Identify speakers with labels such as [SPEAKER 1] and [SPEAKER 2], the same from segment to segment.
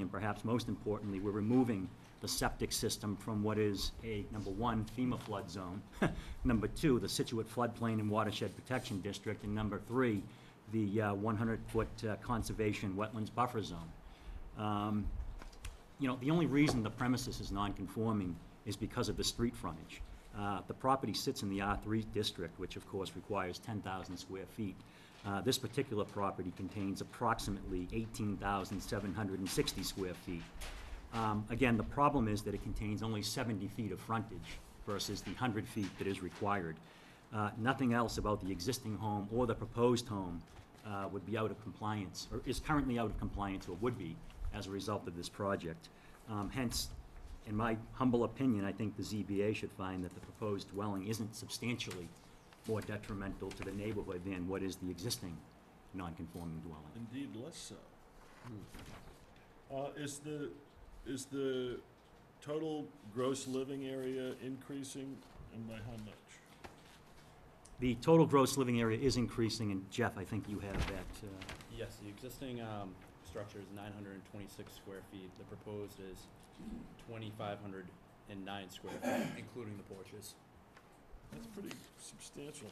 [SPEAKER 1] and perhaps most importantly, we're removing the septic system from what is a, number one, FEMA flood zone, number two, the Situate floodplain and watershed protection district, and number three, the uh, 100-foot uh, conservation wetlands buffer zone. Um, you know, the only reason the premises is non-conforming is because of the street frontage. Uh, The property sits in the R3 district, which of course requires 10,000 square feet. Uh, This particular property contains approximately 18,760 square feet. Um, Again, the problem is that it contains only 70 feet of frontage versus the 100 feet that is required. Uh, Nothing else about the existing home or the proposed home uh, would be out of compliance, or is currently out of compliance, or would be, as a result of this project. Um, Hence, in my humble opinion, I think the ZBA should find that the proposed dwelling isn't substantially more detrimental to the neighborhood than what is the existing non-conforming dwelling.
[SPEAKER 2] Indeed, less so. Uh, is the, is the total gross living area increasing and by how much?
[SPEAKER 1] The total gross living area is increasing, and Jeff, I think you have that, uh,
[SPEAKER 3] Yes, the existing um, structure is 926 square feet. The proposed is 2,509 square feet, including the porches.
[SPEAKER 2] That's pretty substantial.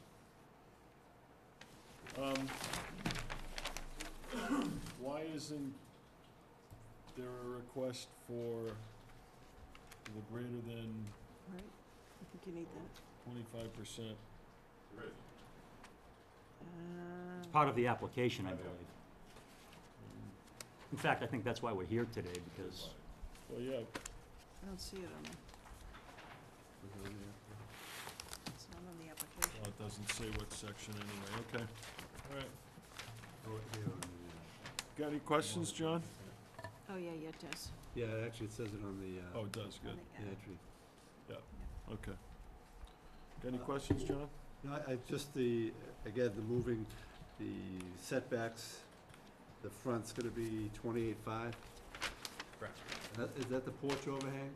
[SPEAKER 2] Um, why isn't there a request for the greater than
[SPEAKER 4] Right, I think you need that.
[SPEAKER 2] twenty-five percent?
[SPEAKER 1] it's
[SPEAKER 4] Uh,
[SPEAKER 1] part of the application, I believe. In fact, I think that's why we're here today, because
[SPEAKER 2] Well, yeah,
[SPEAKER 4] I don't see it on the, it's not on the application.
[SPEAKER 2] well, it doesn't say what section anyway, okay, all right. Got any questions, John?
[SPEAKER 4] Oh, yeah, yeah, it does.
[SPEAKER 5] Yeah, it actually says it on the,
[SPEAKER 2] Oh,
[SPEAKER 5] uh,
[SPEAKER 2] it does,
[SPEAKER 4] On
[SPEAKER 2] good.
[SPEAKER 4] the
[SPEAKER 5] the
[SPEAKER 4] app.
[SPEAKER 5] entry.
[SPEAKER 2] Okay. Got any questions, John?
[SPEAKER 5] No, I, I just the, again, the moving, the setbacks, the front's gonna be twenty-eight five.
[SPEAKER 3] Correct.
[SPEAKER 5] Is that the porch overhang?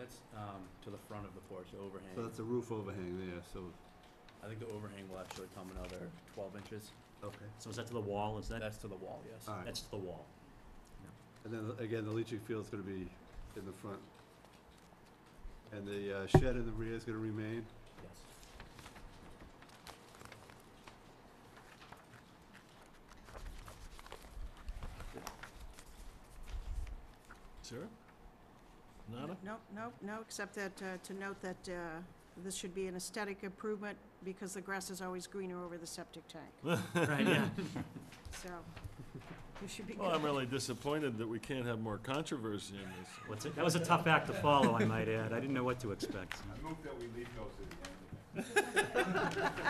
[SPEAKER 3] That's um, to the front of the porch, the
[SPEAKER 5] So
[SPEAKER 3] overhang.
[SPEAKER 5] that's a roof overhang there, so,
[SPEAKER 3] I think the overhang will actually come another 12 inches.
[SPEAKER 5] okay.
[SPEAKER 1] so is that to the wall, is that,
[SPEAKER 3] That's to the wall, yes.
[SPEAKER 5] All right,
[SPEAKER 1] that's to the wall?
[SPEAKER 5] and then again, the leaching field's gonna be in the front. And the uh, shed in the rear is gonna remain?
[SPEAKER 3] Yes.
[SPEAKER 2] Sarah? Nada?
[SPEAKER 4] Nope, nope, no, except that, uh, to note that uh, this should be an aesthetic improvement because the grass is always greener over the septic tank,
[SPEAKER 1] Right, yeah.
[SPEAKER 4] so you should be
[SPEAKER 2] Well, I'm
[SPEAKER 4] good.
[SPEAKER 2] really disappointed that we can't have more controversy in this.
[SPEAKER 1] What's it, that was a tough act to follow, I might add. I didn't know what to expect.
[SPEAKER 6] I move that we leave those to the end.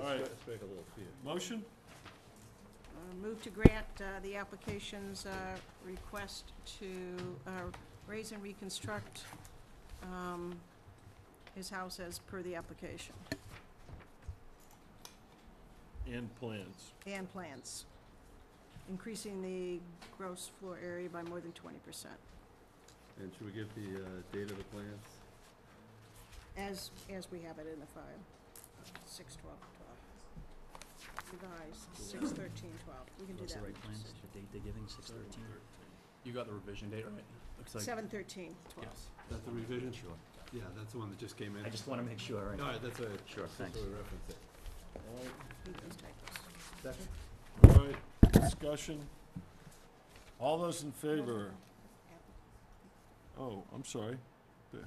[SPEAKER 2] All right.
[SPEAKER 5] Strike a little fear.
[SPEAKER 2] Motion?
[SPEAKER 4] Uh, Move to grant uh, the application's uh, request to uh, raise and reconstruct um, his house as per the application
[SPEAKER 2] And plans.
[SPEAKER 4] and plans, increasing the gross floor area by more than twenty percent.
[SPEAKER 5] And should we give the, uh, date of the plans?
[SPEAKER 4] As, as we have it in the file, six twelve twelve. Revised, six thirteen twelve, we can do
[SPEAKER 1] Those
[SPEAKER 4] that.
[SPEAKER 1] are the right plans, the date they're giving, six thirteen?
[SPEAKER 3] You got the revision date right? Looks like.
[SPEAKER 4] Seven thirteen twelve.
[SPEAKER 3] Yes.
[SPEAKER 5] That's the revision?
[SPEAKER 1] Sure.
[SPEAKER 5] Yeah, that's the one that just came in.
[SPEAKER 1] I just wanna make sure,
[SPEAKER 5] All
[SPEAKER 1] right?
[SPEAKER 5] right, that's a,
[SPEAKER 1] Sure, thanks.
[SPEAKER 5] that's what we referenced it.
[SPEAKER 2] All right,
[SPEAKER 4] Leave those typos.
[SPEAKER 5] Second?
[SPEAKER 2] All right, discussion. All those in favor? Oh, I'm sorry. The-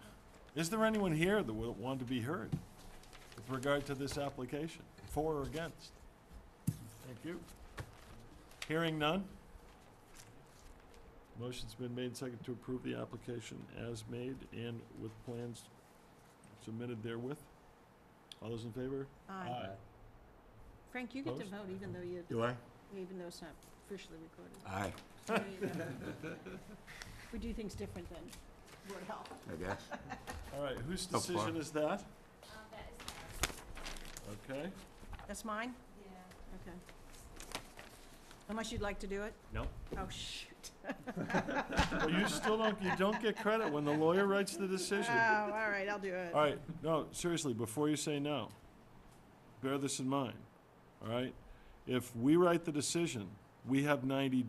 [SPEAKER 2] Is there anyone here that would want to be heard with regard to this application, for or against? Thank you. Hearing none? Motion's been made second to approve the application as made and with plans submitted therewith. All those in favor?
[SPEAKER 4] Aye. Frank, you get to
[SPEAKER 2] Opposed?
[SPEAKER 4] vote even though you,
[SPEAKER 6] Do I?
[SPEAKER 4] even though it's not officially recorded.
[SPEAKER 6] Aye,
[SPEAKER 4] There you go. We do things different than Board of Health.
[SPEAKER 6] I guess.
[SPEAKER 2] All right, whose
[SPEAKER 6] So far.
[SPEAKER 2] decision is that? Okay,
[SPEAKER 4] That's mine? Yeah. Okay. Unless you'd like to do it?
[SPEAKER 1] No?
[SPEAKER 4] Oh, shoot.
[SPEAKER 2] well, you still don't, you don't get credit when the lawyer writes the decision.
[SPEAKER 4] Oh, all right, I'll do it.
[SPEAKER 2] All right, no, seriously, before you say no, bear this in mind, all right? If we write the decision, we have ninety days.